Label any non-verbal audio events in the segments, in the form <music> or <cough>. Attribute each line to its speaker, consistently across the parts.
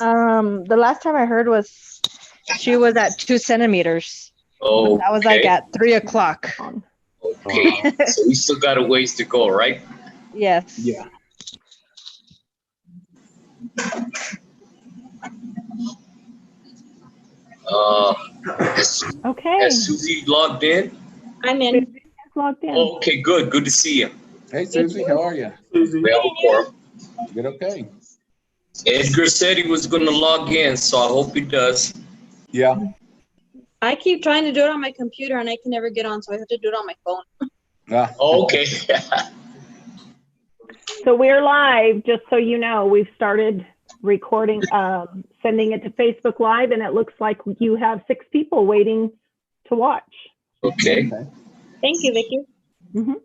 Speaker 1: Um, the last time I heard was she was at two centimeters.
Speaker 2: Oh,
Speaker 1: That was like uh, at three o'clock.
Speaker 2: okay. so we still got a ways to go, right?
Speaker 1: Yes.
Speaker 3: Yeah.
Speaker 2: Uh, has,
Speaker 4: Okay,
Speaker 2: has Susie logged in? Oh,
Speaker 5: I'm in.
Speaker 4: logged in.
Speaker 2: Okay, good. Good to see you.
Speaker 3: Hey, Susie, how are you?
Speaker 2: We have a quorum.
Speaker 3: Good, okay?
Speaker 2: Edgar said he was going to log in, so I hope he does.
Speaker 3: Yeah,
Speaker 5: I keep trying to do it on my computer and I can never get on, so I have to do it on my phone.
Speaker 3: ah,
Speaker 2: Oh, Okay. <laughs>
Speaker 4: So we're live, just so you know, we've started recording, um, sending it to Facebook Live, and it looks like you have six people waiting to watch.
Speaker 2: Okay.
Speaker 5: Thank you, Vicky.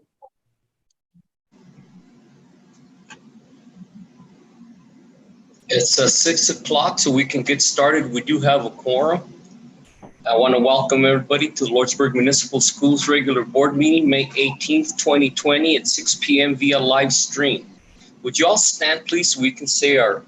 Speaker 2: It's uh, six o'clock, so we can get started. We do have a quorum. I want to welcome everybody to Lordsburg Municipal Schools Regular Board Meeting, May 18th, 2020 at 6 p.m. via live stream. Would you all stand, please, so we can say our,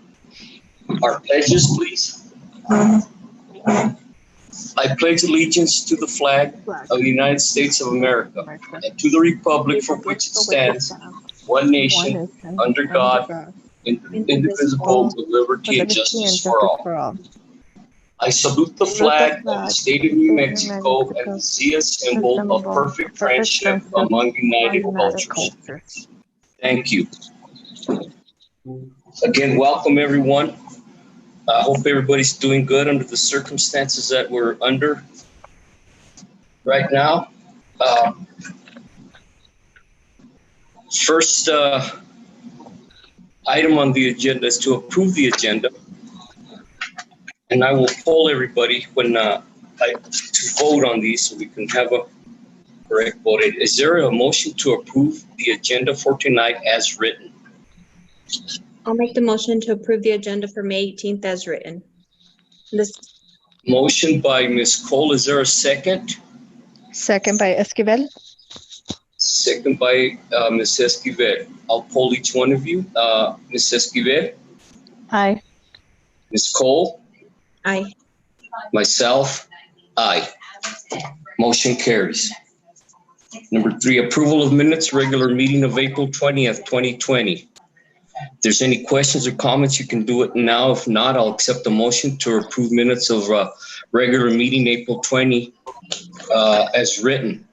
Speaker 2: our pledges, please? I pledge allegiance to the flag of the United States of America and to the republic for which it stands, one nation, under God, in- indivisible, with liberty and justice for all. I salute the flag of the state of New Mexico and the sea symbol of perfect friendship among united cultures. Thank you. Again, welcome everyone. I hope everybody's doing good under the circumstances that we're under right now. Uh, First uh, item on the agenda is to approve the agenda. And I will poll everybody when uh, I, to vote on these so we can have a correct vote. Is there a motion to approve the agenda for tonight as written?
Speaker 5: I'll make the motion to approve the agenda for May 18th as written. This,
Speaker 2: Motion by Ms. Cole, is there a second?
Speaker 1: Second by Esquivel.
Speaker 2: Second by uh, Ms. Esquivel. I'll poll each one of you. Uh, Ms. Esquivel,
Speaker 1: Aye.
Speaker 2: Ms. Cole,
Speaker 5: I,
Speaker 2: myself, aye. Motion carries. Number three, approval of minutes, regular meeting of April 20th, 2020. If there's any questions or comments, you can do it now. If not, I'll accept the motion to approve minutes of uh, regular meeting April 20 uh, as written.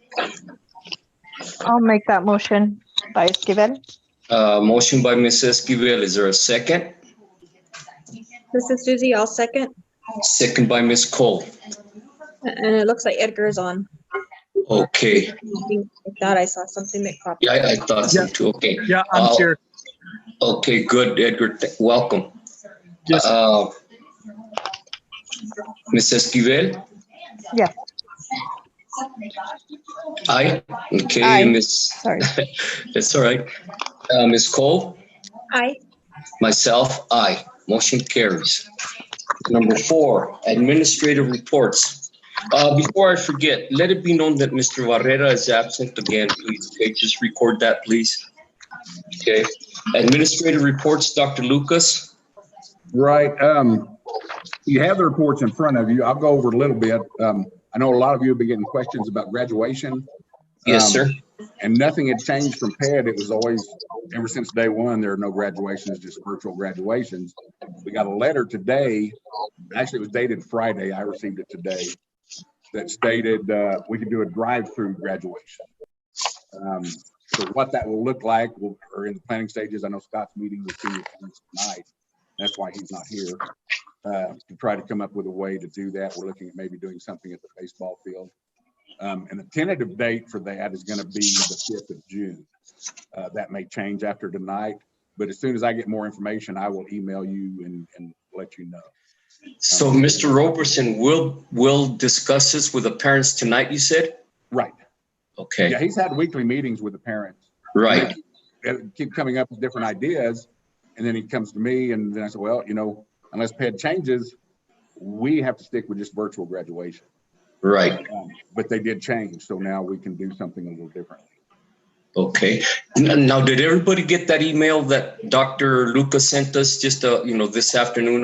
Speaker 1: I'll make that motion by Esquivel.
Speaker 2: Uh, Motion by Ms. Esquivel, is there a second?
Speaker 5: this is Susie, I'll second.
Speaker 2: Second by Ms. Cole.
Speaker 5: And it looks like Edgar is on.
Speaker 2: Okay,
Speaker 5: I thought I saw something that popped.
Speaker 2: yeah, I I thought so too, okay.
Speaker 6: Yeah, I'm
Speaker 2: Uh,
Speaker 6: here.
Speaker 2: Okay, good, Edgar, Th- welcome.
Speaker 6: Yes.
Speaker 2: Uh, Ms. Esquivel?
Speaker 1: Yeah.
Speaker 2: Aye, okay,
Speaker 1: Aye.
Speaker 2: Ms.,
Speaker 1: Sorry.
Speaker 2: that's all right. Uh, Ms. Cole?
Speaker 5: I,
Speaker 2: Myself, aye. Motion carries. Number four, administrative reports. Uh, Before I forget, let it be known that Mr. Barrera is absent again, please. Okay, just record that, please. Okay, administrative reports, Dr. Lucas.
Speaker 3: right. Um, you have the reports in front of you. I'll go over a little bit. Um, I know a lot of you have been getting questions about graduation.
Speaker 2: Yes,
Speaker 3: Um,
Speaker 2: sir.
Speaker 3: And nothing had changed from PED. It was always, ever since day one, there are no graduations, just virtual graduations. We got a letter today, actually it was dated Friday, I received it today, that stated, uh, we could do a drive-through graduation. Um, So what that will look like, we'll- we're in the planning stages. I know Scott's meeting with senior parents tonight. That's why he's not here. uh, To try to come up with a way to do that. We're looking at maybe doing something at the baseball field. Um, and the tentative date for that is gonna be the fifth of June. Uh, that may change after tonight, but as soon as I get more information, I will email you and, and let you know.
Speaker 2: So Mr. Roberson will, will discuss this with the parents tonight, you said?
Speaker 3: Right.
Speaker 2: Okay,
Speaker 3: Yeah, he's had weekly meetings with the parents.
Speaker 2: right.
Speaker 3: And keep coming up with different ideas. And then he comes to me and then I said, well, you know, unless PED changes, we have to stick with just virtual graduation.
Speaker 2: Right,
Speaker 3: Um, But they did change, so now we can do something a little differently.
Speaker 2: okay. N- Now, did everybody get that email that Dr. Lucas sent us just, uh, you know, this afternoon